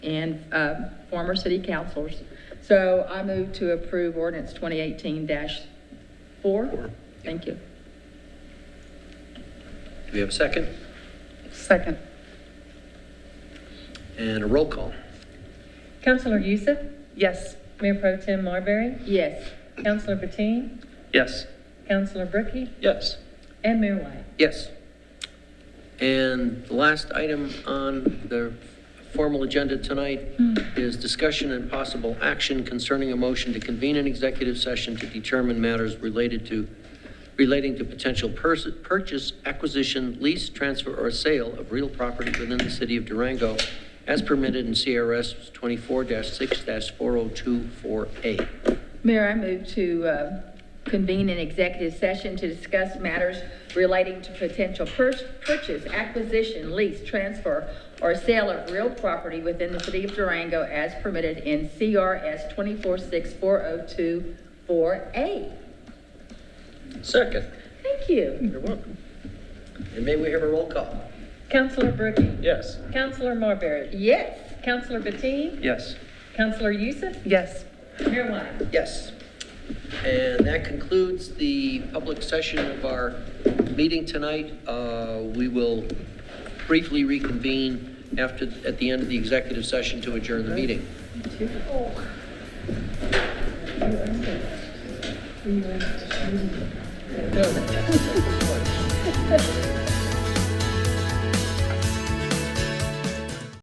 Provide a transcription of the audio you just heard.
and uh, former city councilors. So I move to approve ordinance 2018-4. Thank you. Do we have a second? Second. And a roll call. Councillor Youssef, Yes. Mayor Pro Tem Marbury, Yes. Councillor Bateen, Yes. Councillor Brookie, Yes. and Mayor White. Yes. And the last item on the formal agenda tonight is discussion and possible action concerning a motion to convene an executive session to determine matters related to, relating to potential pers- purchase, acquisition, lease, transfer, or sale of real property within the city of Durango as permitted in CRS 24-6-4024A. Mayor, I move to uh, convene an executive session to discuss matters relating to potential pur- purchase, acquisition, lease, transfer, or sale of real property within the city of Durango as permitted in CRS 246402-4A. Second. Thank you. You're welcome. And may we have a roll call? Councillor Brookie, Yes. Councillor Marbury, Yes. Councillor Bateen, Yes. Councillor Youssef, Yes. Mayor White. Yes. And that concludes the public session of our meeting tonight. Uh, We will briefly reconvene after, at the end of the executive session to adjourn the meeting.